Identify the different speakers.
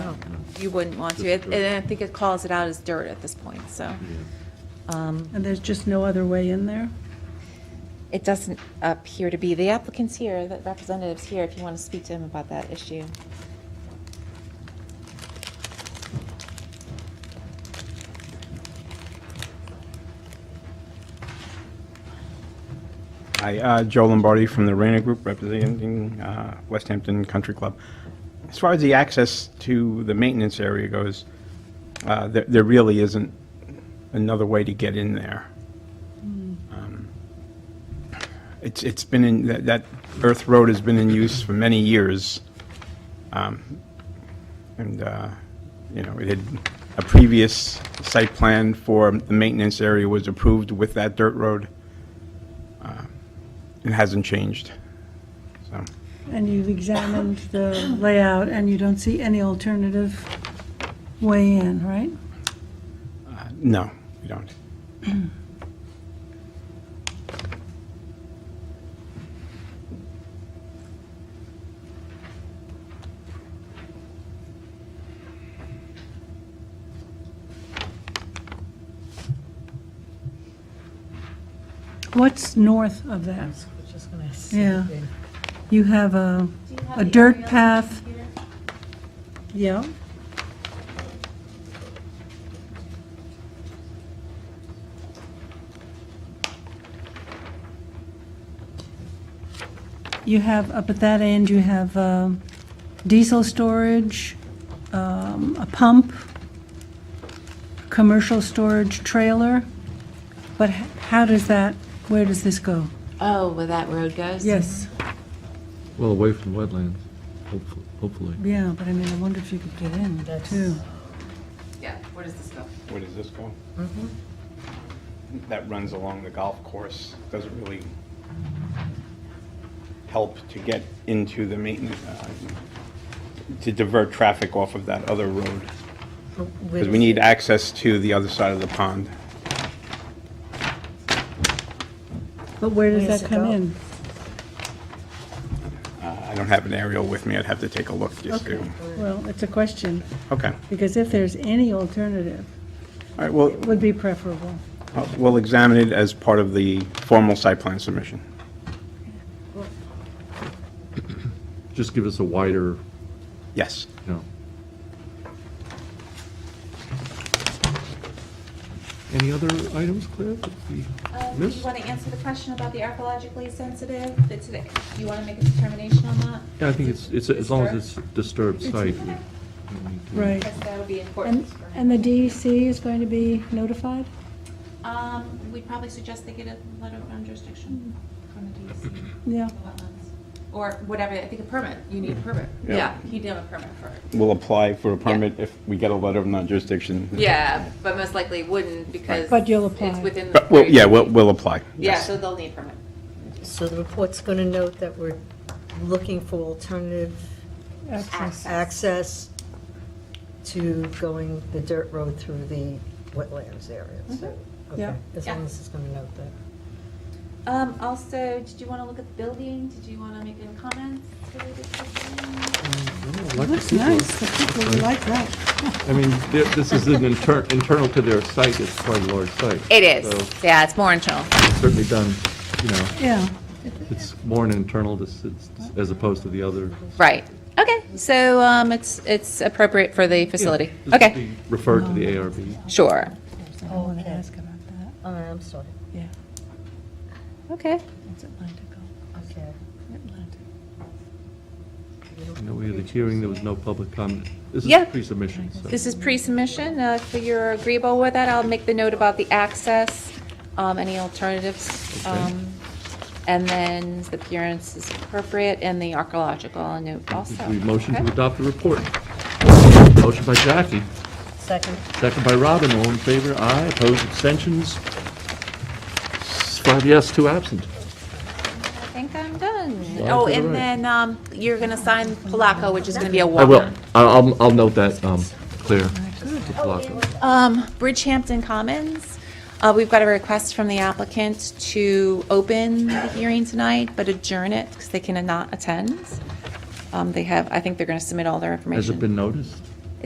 Speaker 1: you wouldn't want to. It- And I think it calls it out as dirt at this point, so. um,
Speaker 2: And there's just no other way in there?
Speaker 1: It doesn't appear to be. The applicant's here, the representative's here, if you want to speak to him about that issue.
Speaker 3: Hi, uh, Joe Lombardi from the Rana Group, representing uh, West Hampton Country Club. As far as the access to the maintenance area goes, uh, there there really isn't another way to get in there. Um, It's It's been in, that- that earth road has been in use for many years. Um, And, uh, you know, it had, a previous site plan for the maintenance area was approved with that dirt road. Uh, It hasn't changed. So,
Speaker 2: And you've examined the layout, and you don't see any alternative way in, right?
Speaker 3: uh, no, we don't.
Speaker 2: What's north of that?
Speaker 4: Just gonna ask.
Speaker 2: Yeah. You have a, a dirt path. Yeah. You have, up at that end, you have um, diesel storage, um, a pump, commercial storage trailer, but h- how does that, where does this go?
Speaker 1: Oh, where that road goes?
Speaker 2: Yes.
Speaker 5: Well, away from wetlands, hopefully- hopefully.
Speaker 2: Yeah, but I mean, I wonder if you could get in,
Speaker 4: That's-
Speaker 2: too.
Speaker 6: Yeah, where does this go?
Speaker 3: Where does this go? That runs along the golf course, doesn't really help to get into the maintenance, uh, to divert traffic off of that other road, because we need access to the other side of the pond.
Speaker 2: But where does
Speaker 4: Where does
Speaker 2: that
Speaker 4: it
Speaker 2: come
Speaker 4: go?
Speaker 2: in?
Speaker 3: Uh, I don't have an aerial with me, I'd have to take a look just to,
Speaker 2: Well, it's a question,
Speaker 3: okay. All
Speaker 2: because if there's any alternative,
Speaker 3: right, well,
Speaker 2: it would be preferable.
Speaker 3: uh, we'll examine it as part of the formal site plan submission.
Speaker 5: Just give us a wider,
Speaker 3: Yes.
Speaker 5: you know. Any other items, Claire, that we
Speaker 1: Do Um, you
Speaker 5: missed?
Speaker 1: want to answer the question about the archaeologically sensitive? Do you want to make a determination on that?
Speaker 5: Yeah, I think it's, it's, as long as it's disturbed site. we don't need to-
Speaker 2: Right.
Speaker 1: Because that would be important.
Speaker 7: And, and the
Speaker 2: E
Speaker 7: DEC is going to be notified?
Speaker 1: Um, we'd probably suggest they get a letter of non-jurisdiction from the DEC.
Speaker 2: Yeah.
Speaker 1: the wetlands. Or whatever, I think a permit, you
Speaker 7: Mm-hmm.
Speaker 1: need a permit.
Speaker 3: Yeah.
Speaker 6: Yeah, he'd have a permit for it.
Speaker 3: We'll apply for a permit if we get a letter of non-jurisdiction.
Speaker 6: Yeah, but most likely wouldn't because.
Speaker 7: Mm-hmm. But you'll apply.
Speaker 6: It's within. the
Speaker 3: But, Uh, well, yeah, we'll,
Speaker 6: 30
Speaker 3: we'll apply.
Speaker 6: Yeah,
Speaker 3: yes.
Speaker 6: so they'll need a permit.
Speaker 4: So the report's gonna note that we're looking for alternative
Speaker 2: Access.
Speaker 4: access to going the dirt road through the wetlands area, so. okay,
Speaker 2: Mm-hmm. Yeah.
Speaker 4: As long as it's gonna note that.
Speaker 1: Um, also, did you want to look at the building? Did you want to make any comments related to the building?
Speaker 5: I like the
Speaker 2: Looks
Speaker 5: people.
Speaker 2: nice, the people like that.
Speaker 5: I mean, thi- this is an inter- internal to their site, it's quite a large site.
Speaker 1: It
Speaker 5: So
Speaker 1: is, yeah, it's more internal.
Speaker 5: it's certainly done, you know,
Speaker 2: Yeah,
Speaker 5: it's more an internal, dis- it's- as opposed to the other.
Speaker 1: Right, okay, so, um, it's, it's appropriate for the facility.
Speaker 5: This would
Speaker 1: Okay,
Speaker 5: be Referred to the ARB.
Speaker 1: sure,
Speaker 2: I want to ask about that.
Speaker 4: Oh, I'm sorry.
Speaker 2: Yeah.
Speaker 1: okay.
Speaker 2: It's Atlantic.
Speaker 4: Okay.
Speaker 2: Atlantic.
Speaker 5: No, we had a hearing, there was no public comment. This
Speaker 1: Yeah.
Speaker 5: is pre-submission, so.
Speaker 1: This is pre-submission, uh, if you're agreeable with that, I'll make the note about the access, um, any alternatives.
Speaker 5: Okay.
Speaker 1: um, And then the appearance is appropriate and the archaeological I'll note also.
Speaker 5: We motion to
Speaker 1: Okay?
Speaker 5: adopt the report. Motion by Jackie,
Speaker 4: Second.
Speaker 5: second by Robin, all in favor, aye, opposed, abstentions? Five yes, two absent.
Speaker 1: I think I'm done.
Speaker 5: Slide
Speaker 1: Oh,
Speaker 5: to the
Speaker 1: and
Speaker 5: right.
Speaker 1: then, um, you're gonna sign Palaco, which is gonna be a
Speaker 5: I
Speaker 1: walk
Speaker 5: will, I- I'll, I'll note that, um, Claire.
Speaker 1: Um, Bridgehampton Commons, uh, we've got a request from the applicant to open the hearing tonight, but adjourn it because they cannot attend. Um, they have, I think they're gonna submit all their information.
Speaker 5: Has it been noticed?